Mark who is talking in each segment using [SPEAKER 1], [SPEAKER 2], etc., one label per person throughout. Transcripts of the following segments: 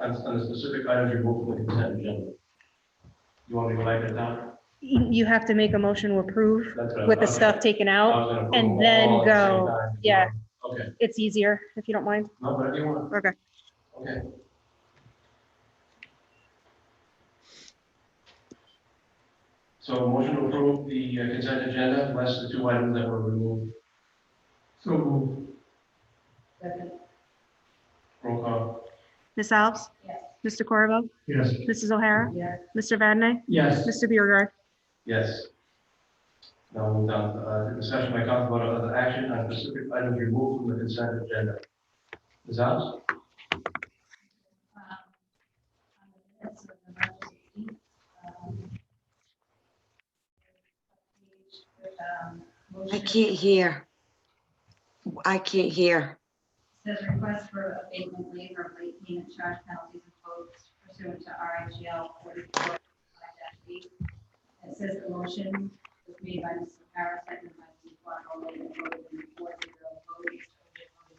[SPEAKER 1] on, on the specific items removed from the consent agenda. You want me to write that down?
[SPEAKER 2] You you have to make a motion to approve
[SPEAKER 1] That's what I-
[SPEAKER 2] with the
[SPEAKER 1] okay.
[SPEAKER 2] stuff taken
[SPEAKER 1] I
[SPEAKER 2] out.
[SPEAKER 1] was gonna put
[SPEAKER 2] and
[SPEAKER 1] them
[SPEAKER 2] then
[SPEAKER 1] all at the same
[SPEAKER 2] go.
[SPEAKER 1] time.
[SPEAKER 2] Yeah.
[SPEAKER 1] Okay,
[SPEAKER 2] It's easier, if you don't mind.
[SPEAKER 1] no, whatever you want.
[SPEAKER 2] Okay.
[SPEAKER 1] Okay. So motion to approve the uh, consent agenda, less the two items that were removed. So moved.
[SPEAKER 3] Second.
[SPEAKER 1] Roll call.
[SPEAKER 2] Ms. Alves?
[SPEAKER 3] Yes.
[SPEAKER 2] Mr. Corvo?
[SPEAKER 1] Yes.
[SPEAKER 2] Mrs. O'Hara?
[SPEAKER 3] Yes.
[SPEAKER 2] Mr. Vadney,
[SPEAKER 1] Yes.
[SPEAKER 2] Mr. Biergard?
[SPEAKER 1] Yes. Now we'll move down, uh, to discussion by council vote on other action on specific items removed from the consent agenda. Ms. Alves?
[SPEAKER 4] I can't hear. I can't hear.
[SPEAKER 3] Says request for abatement waiver of late payment charge penalties and quotes pursuant to RIGL forty-four eight. It says the motion was made by Mr. Harris, seconded by Mr. Plotkin, all in favor, vote in four zero votes, voted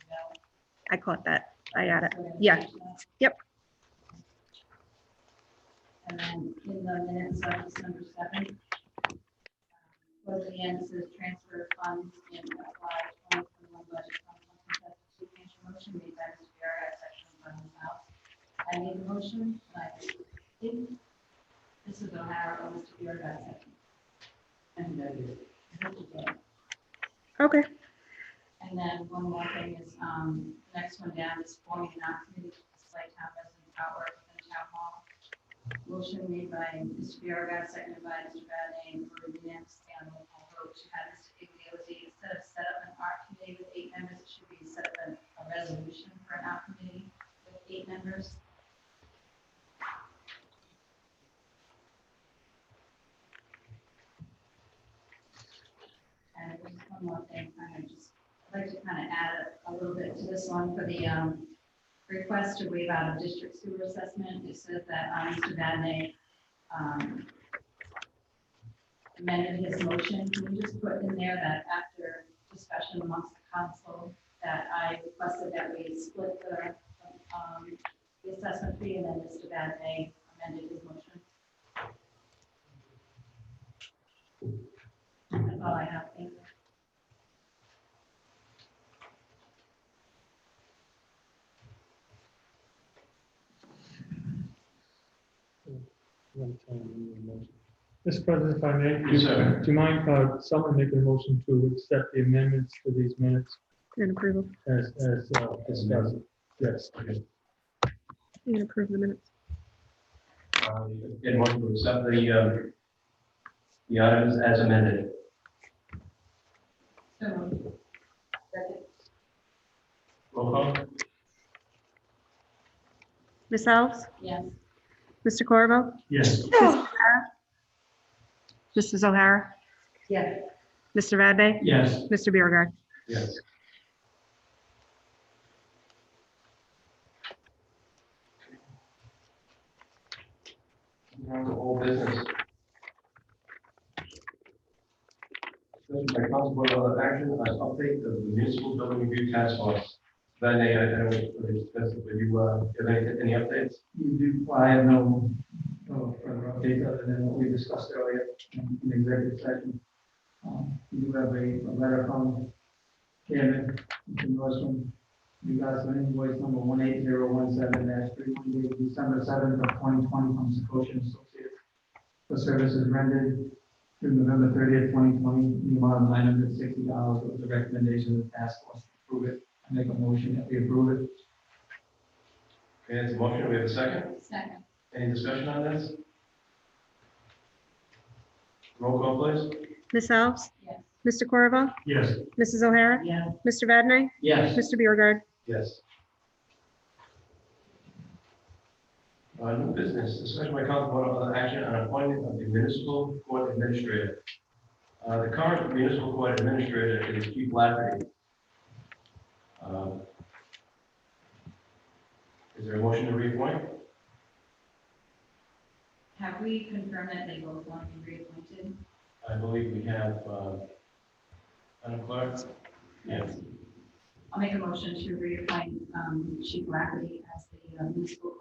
[SPEAKER 3] no.
[SPEAKER 2] I caught that. I got it. Yeah. Yep.
[SPEAKER 3] And then Um, in the minutes of December seventh, um, was the end, it says transfer funds in apply twenty twenty-one budget. from one consent to two. Can I have a Motion made by Mr. Barrett, section by Ms. House. I made a motion, and I think this is O'Hara, or Mr. Barrett, second. And then.
[SPEAKER 2] Okay.
[SPEAKER 3] And then one more thing is, um, the next one down is forming an act committee to display town resident power within town hall. Motion made by Mr. Biragad, seconded by Mr. Vadeney, for unanimous standing vote to have Mr. Igliozzi, instead of set up an art committee with eight members, it should be set up a, a resolution for an art committee with eight members. And there's one more thing, kind of just, I'd like to kind of add a- a little bit to this one for the um, request to waive out of district sewer assessment. It says that um, Mr. Vadeney um, amended his motion. Can you just put in there that after discussion amongst the council, that I requested that we split the um, the assessment fee, and then Mr. Vadeney amended his motion? That's all I have. Thank you.
[SPEAKER 5] Mr. President, if I may.
[SPEAKER 1] Yes, sir.
[SPEAKER 5] Do you mind, uh, someone making a motion to accept the amendments to these minutes
[SPEAKER 2] And approval.
[SPEAKER 5] as, as uh, discussed? Yes.
[SPEAKER 2] You can approve the minutes.
[SPEAKER 1] Uh, Get motion to accept the, uh, the items as amended.
[SPEAKER 3] So moved. Second.
[SPEAKER 1] Roll call.
[SPEAKER 2] Ms. Alves?
[SPEAKER 3] Yes.
[SPEAKER 2] Mr. Corvo?
[SPEAKER 5] Yes.
[SPEAKER 2] Mrs. O'Hara?
[SPEAKER 3] Yes.
[SPEAKER 2] Mr. Vadney,
[SPEAKER 5] Yes.
[SPEAKER 2] Mr. Biergard?
[SPEAKER 1] Yes. Round of old business. Discussion by council vote on other action as update of the municipal building review task force. Then I, I don't know, if we discussed it, but you, uh, have any, any updates?
[SPEAKER 6] You do, I have no, no further update other than what we discussed earlier in the executive session. Um, You have a a letter from Chairman, Mr. Northrum, you guys an invoice number one eight zero one seven dash three one dated December seventh of twenty twenty from Secoshing Associates for services rendered through November thirtieth, twenty twenty, the amount of nine hundred sixty dollars with the recommendation of the task force to approve it. I make a motion that we approve it.
[SPEAKER 1] Okay, it's a motion, we have a second.
[SPEAKER 3] Second.
[SPEAKER 1] Any discussion on this? Roll call, please.
[SPEAKER 2] Ms. Alves?
[SPEAKER 3] Yes.
[SPEAKER 2] Mr. Corvo?
[SPEAKER 5] Yes.
[SPEAKER 2] Mrs. O'Hara?
[SPEAKER 3] Yes.
[SPEAKER 2] Mr. Vadney,
[SPEAKER 6] Yes.
[SPEAKER 2] Mr. Biergard?
[SPEAKER 1] Yes. Uh, new business, discussion by council vote on other action on appointment of the municipal court administrator. Uh, the current municipal court administrator is Keith Lafferty. Um, Is there a motion to reappoint?
[SPEAKER 3] Have we confirmed that they both want to be reappointed?
[SPEAKER 1] I believe we have, uh, Madam Clerk? Yes.
[SPEAKER 3] I'll make a motion to reappoint um, Chief Lafferty as the uh, municipal